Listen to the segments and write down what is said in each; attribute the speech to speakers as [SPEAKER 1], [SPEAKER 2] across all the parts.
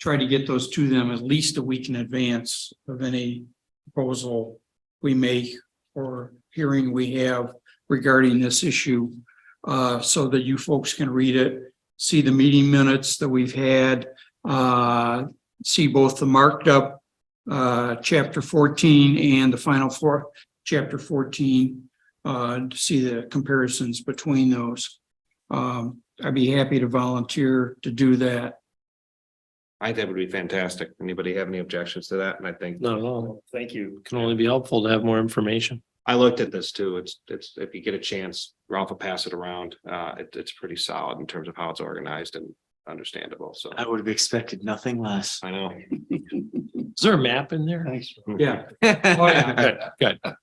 [SPEAKER 1] try to get those to them at least a week in advance of any proposal we make or hearing we have regarding this issue, uh, so that you folks can read it, see the meeting minutes that we've had, uh, see both the marked up uh, chapter fourteen and the final four, chapter fourteen, uh, to see the comparisons between those. Um, I'd be happy to volunteer to do that.
[SPEAKER 2] I think that would be fantastic. Anybody have any objections to that? And I think,
[SPEAKER 3] Not at all.
[SPEAKER 2] thank you.
[SPEAKER 3] Can only be helpful to have more information.
[SPEAKER 2] I looked at this too. It's, it's, if you get a chance, Ralph will pass it around. Uh, it, it's pretty solid in terms of how it's organized and understandable. So
[SPEAKER 4] I would have expected nothing less.
[SPEAKER 2] I know.
[SPEAKER 3] Is there a map in there?
[SPEAKER 4] Thanks.
[SPEAKER 1] Yeah.
[SPEAKER 2] Oh,
[SPEAKER 3] Good, good.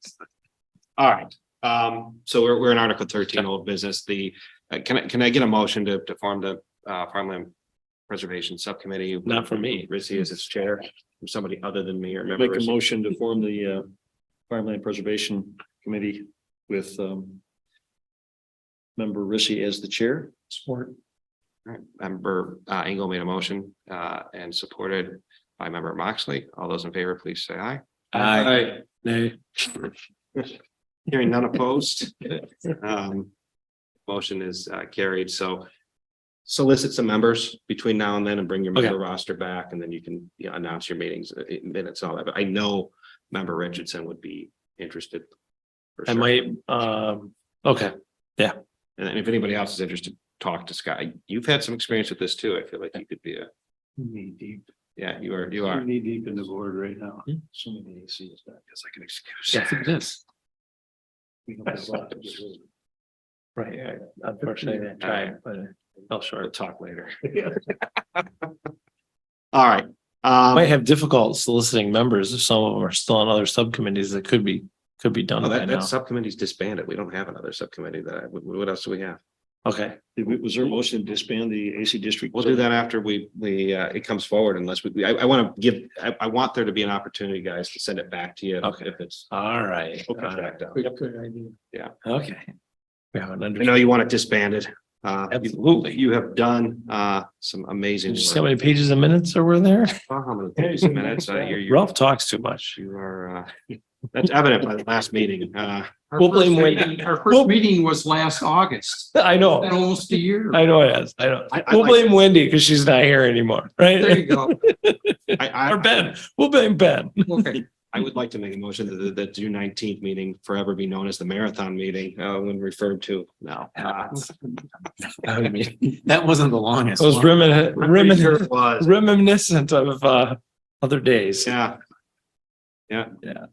[SPEAKER 2] All right. Um, so we're, we're in Article thirteen, old business. The, uh, can I, can I get a motion to, to form the, uh, farmland preservation subcommittee?
[SPEAKER 3] Not for me.
[SPEAKER 2] Rissy is its chair, from somebody other than me or member.
[SPEAKER 5] Make a
[SPEAKER 2] Rissy.
[SPEAKER 5] motion to form the uh Farmland Preservation Committee with um. Member Rissy as the chair.
[SPEAKER 1] Support.
[SPEAKER 2] All right, Member uh, Engel made a motion uh, and supported by member Moxley. All those in favor, please say aye.
[SPEAKER 4] I
[SPEAKER 3] Nay,
[SPEAKER 2] Hearing none opposed. Um, Motion is uh, carried, so solicit some members between now and then and bring your member roster back, and then you can you know, announce your meetings, uh, minutes, and all that. But I know member Richardson would be interested. for
[SPEAKER 3] I
[SPEAKER 2] sure.
[SPEAKER 3] might, um, okay,
[SPEAKER 2] And then if anybody else is interested, talk to Scott. You've had some experience with this too. I feel like you could be a,
[SPEAKER 5] Knee deep,
[SPEAKER 2] yeah, you are, you are.
[SPEAKER 5] knee deep in the board right now.
[SPEAKER 3] Hmm.
[SPEAKER 5] So many ACs back, it's like an
[SPEAKER 3] yes, it is.
[SPEAKER 5] excuse.
[SPEAKER 3] Right, unfortunately, I tried, but I fell
[SPEAKER 2] We'll
[SPEAKER 3] short.
[SPEAKER 2] talk later. All right. um,
[SPEAKER 3] Might have difficult soliciting members if some of them are still on other subcommittees that could be, could be done
[SPEAKER 2] Oh,
[SPEAKER 3] by
[SPEAKER 2] that,
[SPEAKER 3] now.
[SPEAKER 2] that subcommittee's disbanded. We don't have another subcommittee that, what, what else do we have?
[SPEAKER 3] Okay,
[SPEAKER 5] Did we- Was there a motion to disband the AC district?
[SPEAKER 2] We'll do that after we, we, uh, it comes forward unless we- we, I, I want to give, I, I want there to be an opportunity, guys, to send it back to you. if-
[SPEAKER 3] Okay.
[SPEAKER 2] If it's.
[SPEAKER 3] all right.
[SPEAKER 2] all
[SPEAKER 3] all right,
[SPEAKER 2] right, down.
[SPEAKER 1] Good good idea.
[SPEAKER 3] Okay. We have an
[SPEAKER 2] I
[SPEAKER 3] under,
[SPEAKER 2] know you want it disbanded. Uh,
[SPEAKER 3] absolutely.
[SPEAKER 2] you have done, uh, some amazing.
[SPEAKER 3] Just how
[SPEAKER 2] work.
[SPEAKER 3] many pages and minutes are we there?
[SPEAKER 2] Oh, how many pages a minute? Uh, you're- you're-
[SPEAKER 3] Ralph talks too much.
[SPEAKER 2] You are, uh, that's evident by the last meeting. Uh,
[SPEAKER 1] Our
[SPEAKER 3] We'll blame
[SPEAKER 1] first
[SPEAKER 3] Wendy.
[SPEAKER 1] meeting- Our first meeting was last August,
[SPEAKER 3] I know,
[SPEAKER 1] Been almost a year.
[SPEAKER 3] I know it is. I know.
[SPEAKER 2] I- I
[SPEAKER 3] We'll
[SPEAKER 2] like-
[SPEAKER 3] blame Wendy because she's not here anymore,
[SPEAKER 1] There
[SPEAKER 3] right?
[SPEAKER 1] you go.
[SPEAKER 2] I, I.
[SPEAKER 3] Or Ben, we'll blame Ben.
[SPEAKER 1] Okay.
[SPEAKER 2] I would like to make a motion that the, the June nineteenth meeting forever be known as the marathon meeting, uh, when referred to now. Uh,
[SPEAKER 3] I mean,
[SPEAKER 4] That wasn't the
[SPEAKER 3] It
[SPEAKER 4] longest.
[SPEAKER 3] was
[SPEAKER 4] one.
[SPEAKER 3] remin-
[SPEAKER 2] I'm pretty sure
[SPEAKER 3] remin-
[SPEAKER 2] it was.
[SPEAKER 3] reminiscent of uh other days.
[SPEAKER 2] Yeah. Yeah.
[SPEAKER 3] Yeah.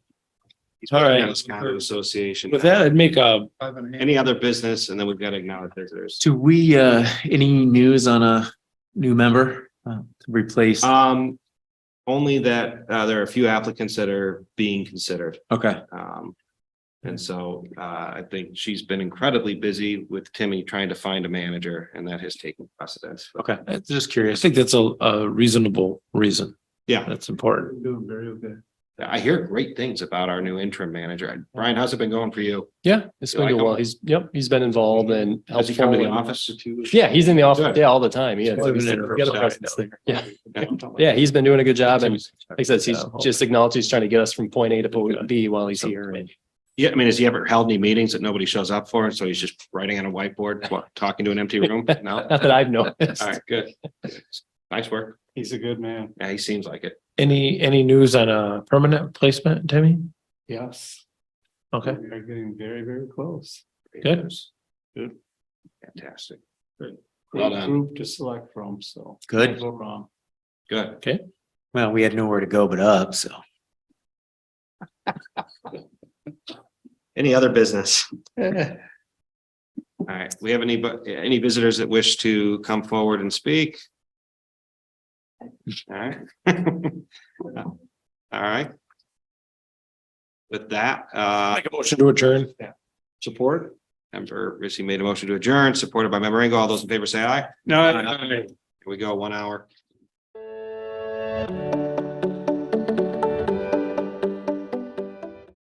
[SPEAKER 2] He's
[SPEAKER 3] All right.
[SPEAKER 2] Wisconsin Association.
[SPEAKER 3] With that, I'd make uh, a,
[SPEAKER 1] Five and a half.
[SPEAKER 2] Any other business, and then we've got to acknowledge visitors.
[SPEAKER 4] Do we, uh, any news on a new member uh, to replace?
[SPEAKER 2] Um, only that, uh, there are a few applicants that are being considered.
[SPEAKER 4] Okay,
[SPEAKER 2] Um, and so, uh, I think she's been incredibly busy with Timmy trying to find a manager, and that has taken precedence.
[SPEAKER 4] okay.
[SPEAKER 3] I'm just curious. I think that's a a reasonable reason.
[SPEAKER 2] Yeah.
[SPEAKER 3] That's important.
[SPEAKER 5] Doing very okay.
[SPEAKER 2] I hear great things about our new interim manager. Brian, how's it been going for you?
[SPEAKER 6] Yeah, it's
[SPEAKER 2] You
[SPEAKER 6] been
[SPEAKER 2] like
[SPEAKER 6] good. Well,
[SPEAKER 2] him?
[SPEAKER 6] he's, yep, he's been involved and
[SPEAKER 2] Has he come to the
[SPEAKER 6] helpful and-
[SPEAKER 2] office?
[SPEAKER 6] Yeah, he's in the
[SPEAKER 2] Good.
[SPEAKER 6] office, yeah, all the time. Yeah.
[SPEAKER 3] He's living in her house
[SPEAKER 6] Yeah, yeah, he's been doing a good job and like I said, he's
[SPEAKER 3] Yeah.
[SPEAKER 6] just acknowledged he's trying to get us from point A to point B while he's here. and-
[SPEAKER 2] Yeah, I mean, has he ever held any meetings that nobody shows up for? And so he's just writing on a whiteboard, what, talking to an empty room? No?
[SPEAKER 6] Not that I've noticed.
[SPEAKER 2] All right, good. Nice work.
[SPEAKER 5] He's a good man.
[SPEAKER 2] Yeah, he seems like it.
[SPEAKER 3] Any, any news on a permanent placement, Timmy?
[SPEAKER 5] Yes.
[SPEAKER 3] Okay,
[SPEAKER 5] We are getting very, very close.
[SPEAKER 3] Good.
[SPEAKER 5] Good.
[SPEAKER 2] Fantastic. Well
[SPEAKER 5] Great
[SPEAKER 2] done.
[SPEAKER 5] group to select from, so.
[SPEAKER 4] Good.
[SPEAKER 5] Can't Go wrong.
[SPEAKER 2] Good.
[SPEAKER 4] Well, we had nowhere to go but up, so.
[SPEAKER 2] Any other business? All right, we have any, bu- any visitors that wish to come forward and speak? All right. All right. With that, uh,
[SPEAKER 3] make a motion to adjourn.
[SPEAKER 2] Support. Member Rissy made a motion to adjourn, supported by member Engel. All those in favor say aye.
[SPEAKER 3] No,
[SPEAKER 2] Here we go, one hour.